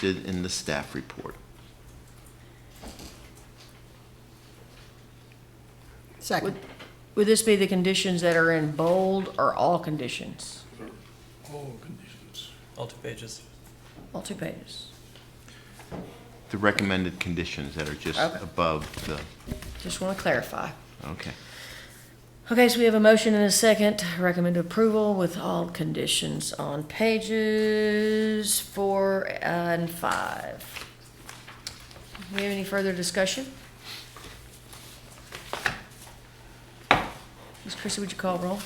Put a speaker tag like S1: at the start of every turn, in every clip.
S1: did in the staff report.
S2: Second.
S3: Would this be the conditions that are in bold or all conditions?
S4: All conditions.
S5: all two pages.
S3: All two pages.
S1: The recommended conditions that are just
S3: Okay.
S1: above the,
S3: Just want to clarify.
S1: okay.
S3: Okay, so we have a motion and a second, recommend approval with all conditions on pages four and five. Do we have any further discussion? Ms. Chrissy, would you call roll?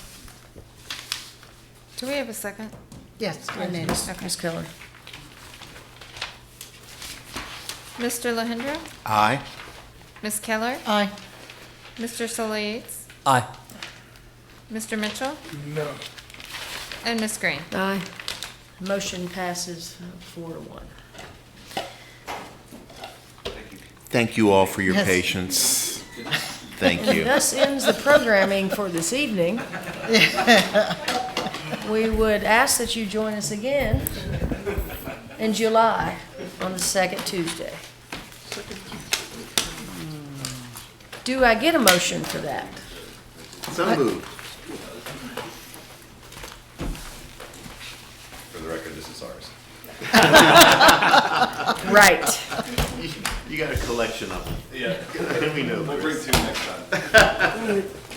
S6: Do we have a second?
S2: Yes, Hernandez.
S6: Okay.
S3: Ms. Keller?
S6: Mr. Lahindra?
S1: Aye.
S6: Ms. Keller?
S2: Aye.
S6: Mr. Solis?
S5: Aye.
S6: Mr. Mitchell?
S4: No.
S6: And Ms. Green?
S3: Aye. Motion passes uh, four to one.
S1: Thank you all for your
S2: Yes.
S1: patience. Thank you.
S3: Thus ends the programming for this evening. We would ask that you join us again in July on the second Tuesday. Do I get a motion for that?
S1: So moved.
S7: For the record, this is ours.
S3: Right.
S1: You got a collection of them.
S7: Yeah.
S1: We know.
S7: We'll bring two next time.